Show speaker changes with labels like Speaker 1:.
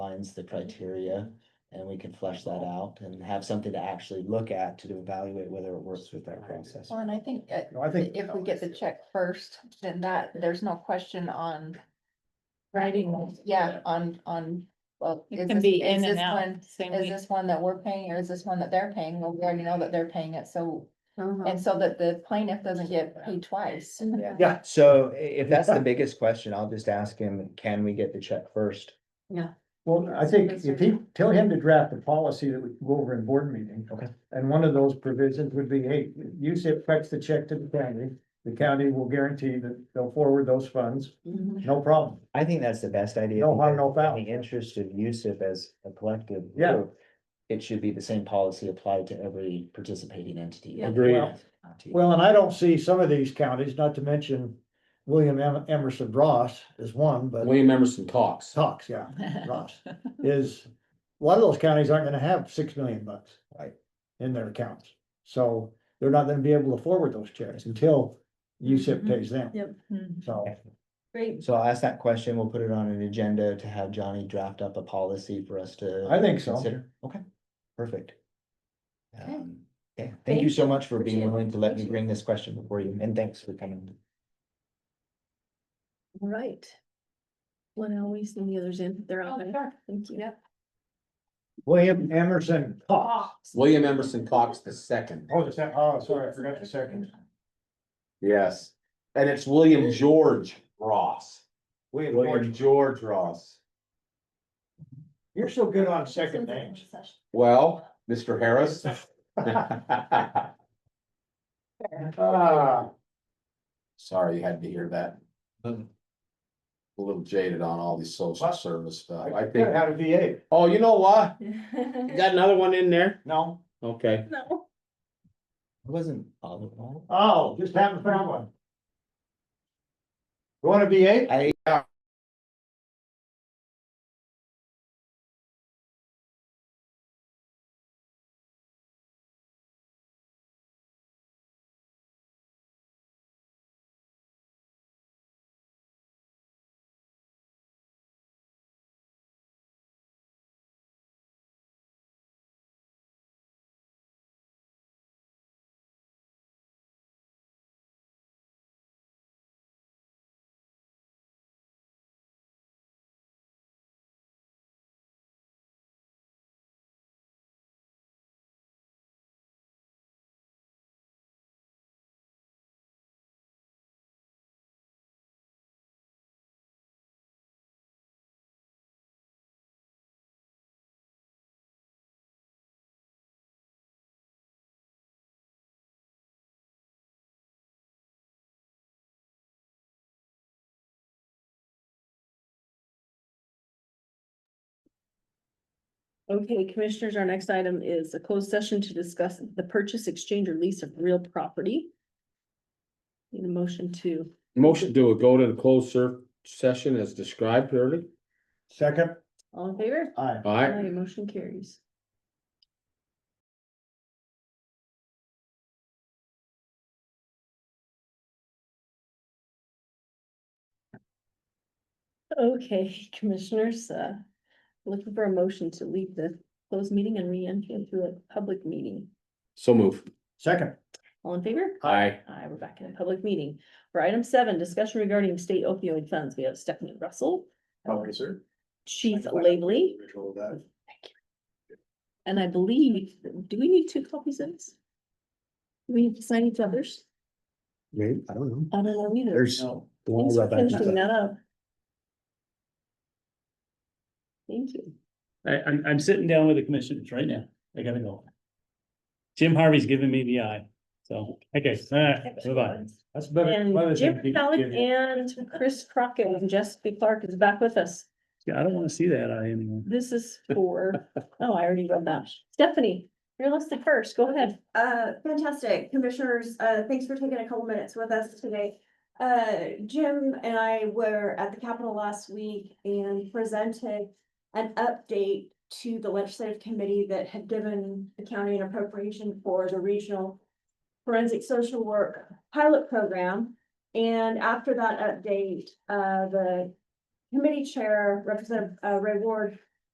Speaker 1: defines the criteria. And we can flesh that out and have something to actually look at to evaluate whether it works with that process.
Speaker 2: Well, and I think uh,
Speaker 3: No, I think.
Speaker 2: if we get the check first, then that, there's no question on,
Speaker 4: Writing.
Speaker 2: yeah, on, on, well.
Speaker 4: It
Speaker 2: is
Speaker 4: can
Speaker 2: this-
Speaker 4: be
Speaker 2: is
Speaker 4: in and
Speaker 2: this one-
Speaker 4: out, same
Speaker 2: Is
Speaker 4: week.
Speaker 2: this one that we're paying or is this one that they're paying? Well, we already know that they're paying it, so,
Speaker 4: Uh-huh.
Speaker 2: and so that the plaintiff doesn't get paid twice.
Speaker 4: Yeah.
Speaker 3: Yeah,
Speaker 1: So i- if that's the biggest question, I'll just ask him, can we get the check first?
Speaker 3: well, I think if he, tell him to draft a policy that we can go over in board meeting.
Speaker 1: Okay.
Speaker 3: And one of those provisions would be, hey, you said fetch the check to the county, the county will guarantee that they'll forward those funds, no problem.
Speaker 1: I think that's the best idea.
Speaker 3: No harm,
Speaker 1: because
Speaker 3: no foul.
Speaker 1: In the interest of Yusuf as a collective.
Speaker 3: Yeah.
Speaker 1: group, It should be the same policy applied to every participating entity.
Speaker 4: Yeah.
Speaker 5: Agreed.
Speaker 3: Well- Well, and I don't see some of these counties, not to mention William Em- Emerson Ross is one, but
Speaker 5: William Emerson Cox.
Speaker 3: Cox, yeah,
Speaker 6: Mm-hmm.
Speaker 3: Ross, is, a lot of those counties aren't gonna have six million bucks.
Speaker 1: Right.
Speaker 3: In their accounts, so they're not gonna be able to forward those checks until USIP
Speaker 4: Mhm.
Speaker 3: pays them,
Speaker 4: Yep.
Speaker 6: Mm-hmm.
Speaker 4: Mhm.
Speaker 3: so.
Speaker 4: Great.
Speaker 1: So I'll ask that question. We'll put it on an agenda to have Johnny draft up a policy for us to.
Speaker 3: I think so.
Speaker 1: consider. Okay, perfect.
Speaker 2: Okay.
Speaker 1: Um, yeah, thank
Speaker 4: Thank
Speaker 1: you so much for
Speaker 4: Appreciate
Speaker 1: being
Speaker 4: it.
Speaker 1: willing to let me
Speaker 4: Thank you.
Speaker 1: bring this question before you, and thanks for coming.
Speaker 6: All right. One always and the others in, they're
Speaker 2: Oh,
Speaker 6: out there. Thank you.
Speaker 3: William Emerson Cox.
Speaker 5: William Emerson Cox the second.
Speaker 3: Oh, the sec- oh, sorry, I forgot the second.
Speaker 5: Yes. And it's William George Ross. William
Speaker 3: William,
Speaker 5: George Ross.
Speaker 3: you're so good on second names.
Speaker 5: Well, Mr. Harris. Ah. Sorry you had to hear that. A little jaded on all these social service stuff. I think,
Speaker 3: had a VA.
Speaker 5: oh, you know what?
Speaker 6: Yeah.
Speaker 7: Got another one in there?
Speaker 3: No,
Speaker 7: Okay.
Speaker 6: No.
Speaker 1: It wasn't all of all.
Speaker 3: oh, just haven't found one. You want a VA?
Speaker 6: Okay, commissioners, our next item is a closed session to discuss the purchase, exchange, or lease of real property. Need a motion to,
Speaker 7: Motion to go to the closed ser- session as described early.
Speaker 3: Second,
Speaker 6: all in favor?
Speaker 3: aye.
Speaker 7: All right.
Speaker 6: Aye, motion carries. Okay, commissioners, uh, looking for a motion to leave the closed meeting and re-enter into a public meeting.
Speaker 7: So move.
Speaker 3: Second,
Speaker 6: All in favor?
Speaker 5: Uh,
Speaker 7: Aye.
Speaker 6: Aye, we're back in a public meeting. For item seven, discussion regarding state opioid funds, we have Stephanie Russell.
Speaker 8: Probably, sir.
Speaker 6: Chief Labley,
Speaker 8: Control of that.
Speaker 6: and I believe, do we need two copies of this? Do we need to sign each other's?
Speaker 1: Maybe, I don't know.
Speaker 6: I don't know either.
Speaker 1: There's.
Speaker 8: No.
Speaker 1: the one
Speaker 6: Thanks for
Speaker 1: right back to
Speaker 6: finishing
Speaker 1: the-
Speaker 6: that up. Thank you.
Speaker 8: I, I'm, I'm sitting down with the commissioners right now. I gotta go. Jim Harvey's giving me the eye, so, okay, all right, bye-bye.
Speaker 3: that's better. better
Speaker 6: And
Speaker 3: than
Speaker 6: Jim
Speaker 3: he-
Speaker 6: Halleck
Speaker 3: give you.
Speaker 6: and Chris Crockett and Jessica Clark is back with us.
Speaker 8: Yeah, I don't wanna see that eye anymore.
Speaker 6: This is for, oh, I already read that. Stephanie, you're listed first. Go ahead.
Speaker 9: Uh, fantastic. Commissioners, uh, thanks for taking a couple minutes with us today. Uh, Jim and I were at the Capitol last week and presented an update to the legislative committee that had given the county an appropriation for the regional forensic social work pilot program. And after that update, uh, the committee chair, Representative uh, Ray Ward,